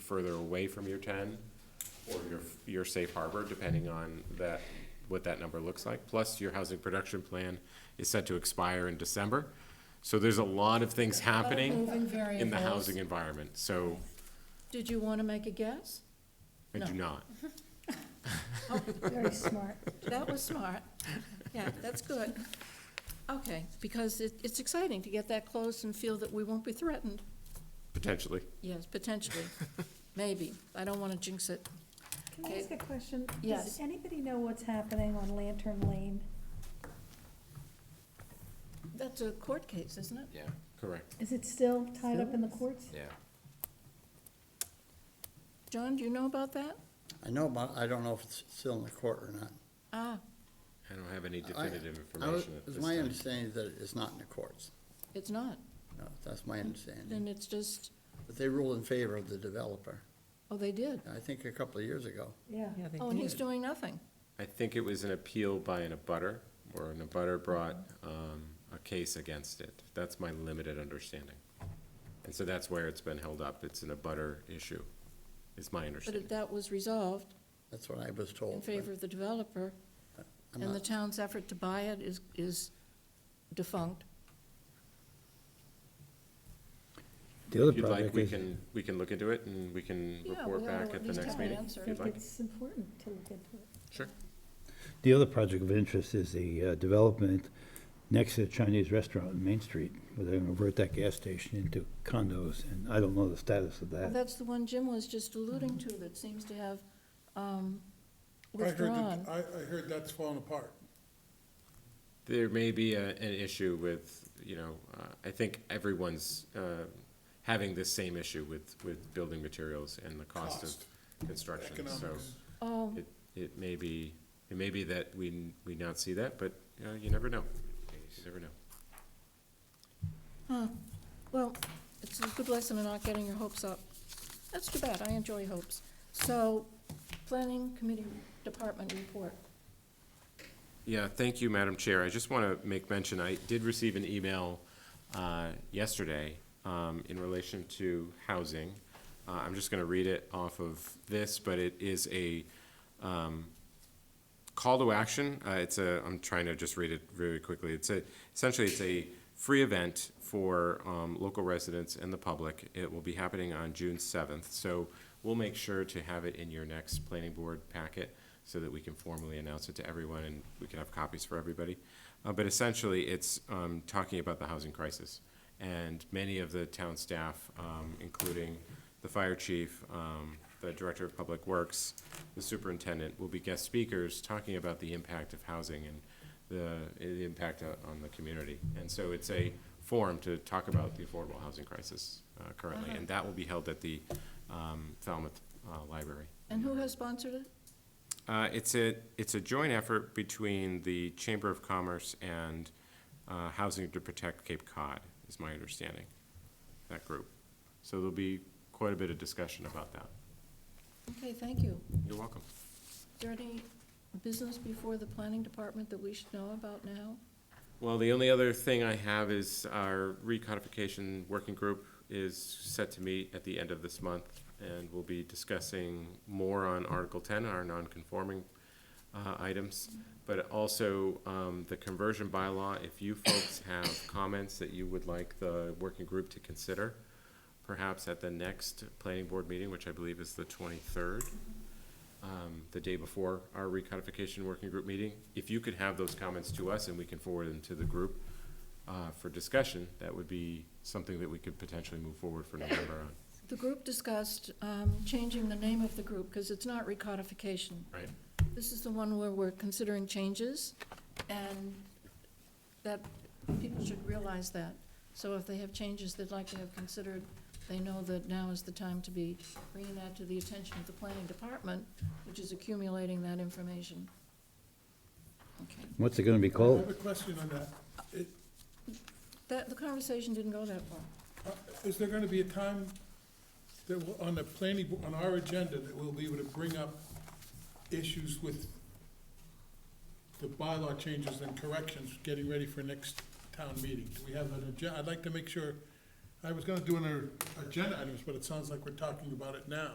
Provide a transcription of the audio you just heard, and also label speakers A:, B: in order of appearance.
A: further away from your ten or your, your safe harbor, depending on that, what that number looks like. Plus, your housing production plan is set to expire in December. So there's a lot of things happening
B: Moving
A: in the
B: variables.
A: housing environment, so
B: Did you want to make a guess?
A: I do
B: No.
A: not.
C: Very smart.
B: That was smart. Yeah, that's good. Okay, because it, it's exciting to get that close and feel that we won't be threatened.
A: Potentially.
B: Yes, potentially, maybe. I don't want to jinx it.
C: Can I
B: Okay.
C: ask a question?
B: Yes.
C: Does anybody know what's happening on Lantern Lane?
B: That's a court case, isn't it?
D: Yeah,
A: Correct.
C: Is it still tied up in the courts?
D: yeah.
B: John, do you know about that?
E: I know about, I don't know if it's still in the court or not.
B: Ah,
A: I don't have any
E: I-
A: definitive
E: I was-
A: information at
E: It's
A: this
E: my
A: time.
E: understanding that it's not in the courts.
B: it's not.
E: No, that's my
B: Then
E: understanding.
B: it's just,
E: But they ruled in favor of the developer,
B: oh, they did.
E: I think a couple of years ago.
C: Yeah.
B: Oh, and he's doing nothing.
A: I think it was an appeal by an abutter, or an abutter brought, um, a case against it. That's my limited understanding. And so that's where it's been held up. It's an abutter issue, is my
B: But if
A: understanding.
B: that was resolved
E: That's what I was
B: in
E: told. but
B: favor of the developer,
E: I'm
B: and the
E: not-
B: town's effort to buy it is, is defunct,
F: The other
A: If you'd like,
F: project
A: we
F: is,
A: can, we can look into it and we can
B: Yeah,
A: report
B: we ought to
A: back
B: at
A: at the
B: least
A: next
B: have an
A: meeting,
B: answer.
A: if
C: I
A: you'd
C: think
A: like.
C: it's important to look into it.
A: Sure.
F: the other project of interest is the uh, development next to the Chinese restaurant on Main Street, where they're gonna convert that gas station into condos, and I don't know the status
G: Uh,
F: of
B: Well,
F: that.
B: that's the one Jim was just alluding to that seems to have um,
G: I heard that-
B: withdrawn.
G: I, I heard that's falling apart.
A: There may be a, an issue with, you know, uh, I think everyone's, uh, having this same issue with, with building materials and the cost
G: Cost.
A: of construction, so.
G: Economics.
B: Oh,
A: It, it may be, it may be that we, we not see that, but, you know, you never know. You never know.
B: well, it's a good lesson in not getting your hopes up. That's too bad, I enjoy hopes. So, planning committee department report.
A: Yeah, thank you, Madam Chair. I just want to make mention, I did receive an email uh, yesterday um, in relation to housing. Uh, I'm just going to read it off of this, but it is a um, call to action. Uh, It's a, I'm trying to just read it really quickly. It's a, essentially, it's a free event for um, local residents and the public. It will be happening on June 7th. So we'll make sure to have it in your next planning board packet so that we can formally announce it to everyone and we can have copies for everybody. Uh, But essentially, it's um, talking about the housing crisis. And many of the town staff, um, including the fire chief, um, the director of public works, the superintendent, will be guest speakers talking about the impact of housing and the, the impact o- on the community. And so it's a forum to talk about the affordable housing crisis uh, currently,
B: Uh-huh.
A: and that will be held at the um, Falmouth uh, Library.
B: And who has sponsored it?
A: Uh, it's a, it's a joint effort between the Chamber of Commerce and uh, Housing to Protect Cape Cod, is my understanding, that group. So there'll be quite a bit of discussion about that.
B: Okay, thank you.
A: You're welcome.
B: Is there any business before the planning department that we should know about now?
A: Well, the only other thing I have is our recodification working group is set to meet at the end of this month, and we'll be discussing more on Article ten, our non-conforming uh, items, but also um, the conversion bylaw. If you folks have comments that you would like the working group to consider, perhaps at the next planning board meeting, which I believe is the twenty-third, um, the day before our recodification working group meeting. If you could have those comments to us and we can forward them to the group uh, for discussion, that would be something that we could potentially move forward for November on.
B: The group discussed um, changing the name of the group because it's not recodification.
A: Right.
B: This is the one where we're considering changes, and that, people should realize that. So if they have changes they'd like to have considered, they know that now is the time to be bringing that to the attention of the planning department, which is accumulating that information. Okay,
F: What's it gonna be
G: I
F: called?
G: have a question on that. It-
B: that, the conversation didn't go that far.
G: uh, Is there gonna be a time that, will- on the planning, bo- on our agenda, that we'll be able to bring up issues with the bylaw changes and corrections, getting ready for next town meeting? Do we have an uh, agenda? I'd like to make sure I was gonna do an agenda items, but it sounds like we're talking about it now.